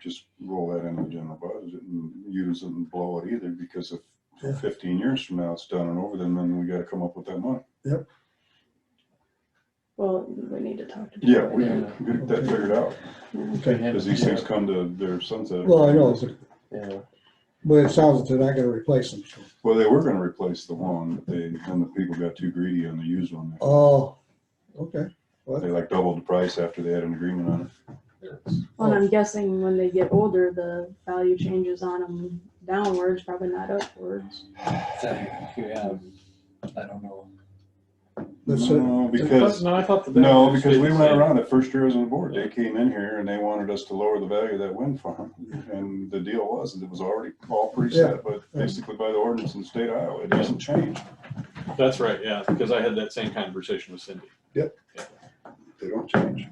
just roll that into the general budget and use it and blow it either, because if Yeah. fifteen years from now it's done and over, then, then we gotta come up with that money. Well, we need to talk to. Joe Yeah, we again. can get that figured out, Okay. as these things come to their sunset. Well, I know, Yeah, but it sounds like they're not gonna replace them. so. Well, they were gonna replace the one, but they, then the people got too greedy on the used one. Oh, okay. They like doubled the price after they had an agreement on it. Well, and I'm guessing when they get older, the value changes on them downwards, probably not upwards. yeah, I don't know. That's it. No, because. No, I thought the. No, batteries because stayed we the went same. around it first year I was on the board. They came in here and they wanted us to lower the value of that wind farm. And the deal was, that it was already all preset, but basically by the ordinance in the state of Iowa, it doesn't change. That's right, yeah, because I had that same conversation with Cindy. They don't change.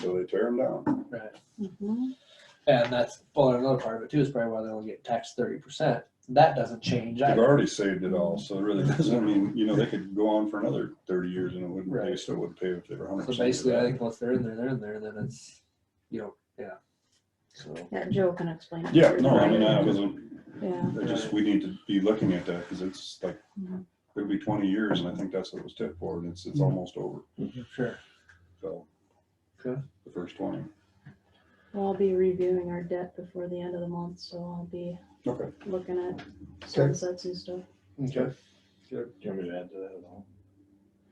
So they tear them down. Right. Mm-hmm. Mhm. And that's, well, another part of it too is probably why they only get taxed thirty percent. That doesn't change They've either. already saved it all, so it really doesn't, I mean, you know, they could go on for another thirty years and it wouldn't, they Right. still would pay if they were hundred So percent. basically, I think once they're in there, they're in there, then it's, you know, yeah. So, Yeah, Joe can explain. it Yeah, to you, no, I mean, right? I wasn't, Yeah, I just, we need to be looking at that because it's like, it'll be twenty years and I think that's what it was tipped for and it's, it's almost over. sure. So. Okay. The first twenty. well, I'll be reviewing our debt before the end of the month, so I'll be Okay. looking at sunsets and stuff. Okay. Do you want me to add to that at all?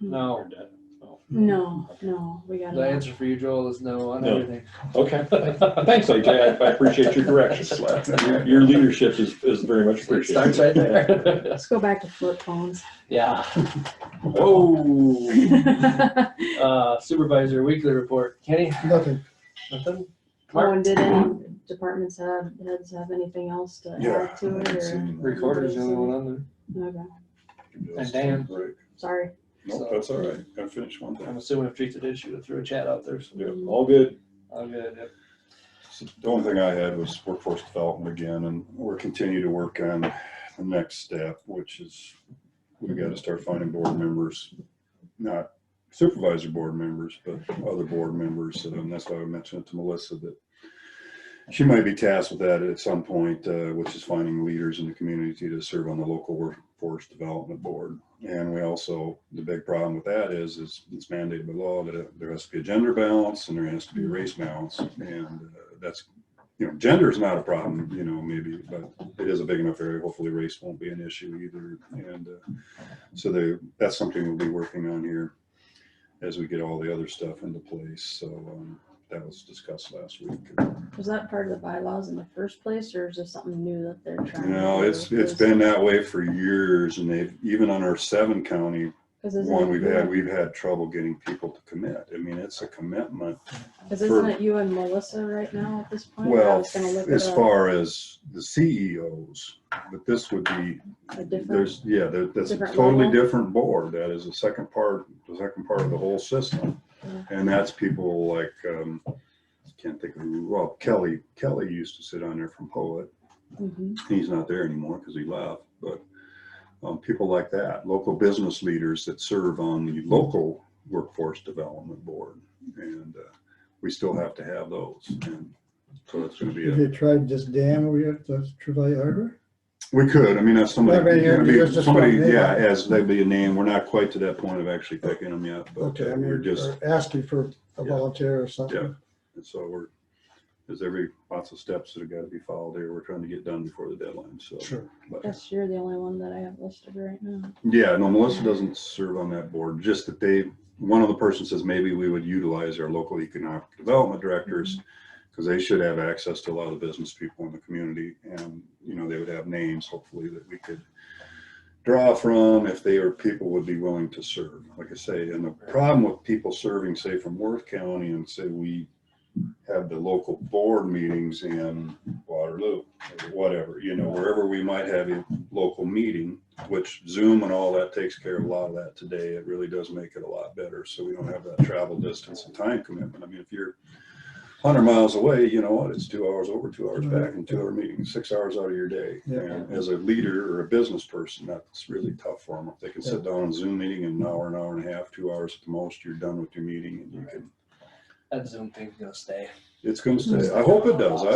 No, Or debt? Mm-hmm. No, no, we the gotta, answer for you, Joel, is no on No. everything. Okay, thanks, AJ, I I appreciate your direction. Your- Your leadership is, is very much It appreciated. starts right there. let's go back to flip phones. Yeah. Oh, Whoa. Uh, Supervisor Weekly Report. Kenny, Nothing. nothing? Oh, Mark, and did any departments have, heads have anything else to Yeah. add to it, or, Recorder's the only one on there. okay, And Dan. sorry. Nope, that's all right. I finished one thing. I'm assuming if Teresa did, she would throw a chat out there, so. Yeah, all good. All good, yep. The only thing I had was workforce development again, and we're continue to work on the next step, which is we gotta start finding board members, not supervisor board members, but other board members. And that's why I mentioned it to Melissa that she might be tasked with that at some point, uh, which is finding leaders in the community to serve on the local workforce development board. And we also, the big problem with that is, is it's mandated by law that it- there has to be a gender balance and there has to be a race balance. And uh, that's, you know, gender is not a problem, you know, maybe, but it is a big enough area. Hopefully race won't be an issue either. And uh, so they, that's something we'll be working on here as we get all the other stuff into place. So um, that was discussed last week. Was that part of the bylaws in the first place, or is this something new that they're trying? to No, do? it's, it's 'Cause- been that way for years and they've, even on our seven county Cause one isn't we've it, had, you- we've had trouble getting people to commit. I mean, it's a commitment. 'cause for- isn't it you and Melissa right now at this point? I Well, was gonna look as it up, far as the CEOs, but this would be, A different, there's, yeah, there- that's a different totally level? different board. That is the second part, the second part of the whole system. Yeah. And that's people like, um, can't think of, who- well, Kelly, Kelly used to sit on there from Poet. Mhm. he's not there anymore because he left, but um, people like that, local business leaders that serve on the local workforce development board. And uh, we still have to have those. And so it's going to Did be, a- they try this dam over here, the Trevally Harbor? we could, I mean, that's Well, I somebody, mean, gonna there's be- just somebody, one name. yeah, as they'd be a name. We're not quite to that point of actually picking them yet, but Okay, uh, I we're mean, just, or asking for a Yeah. volunteer or something. Yeah. and so we're, there's every, lots of steps that have got to be followed here. We're trying to get done before the deadline, so. Sure. but- Guess you're the only one that I have listed right now. Yeah, no, Melissa doesn't serve on that board, just that they, one of the person says maybe we would utilize our local economic development directors because they should have access to a lot of the business people in the community and, you know, they would have names hopefully that we could draw from if they are, people would be willing to serve, like I say, and the problem with people serving, say, from Worth County and say we have the local board meetings in Waterloo, or whatever, you know, wherever we might have a local meeting, which Zoom and all that takes care of a lot of that today. It really does make it a lot better, so we don't have that travel distance and time commitment. I mean, if you're hundred miles away, you know what, it's two hours over, two hours back, and two hour meetings, six hours out of your day. Yeah. And as a leader or a business person, that's really tough for them. If they can sit down on a Zoom meeting in an hour, an hour and a half, two hours at the most, you're done with your meeting and you can That Zoom thing's gonna stay. It's gonna stay. I hope it does. I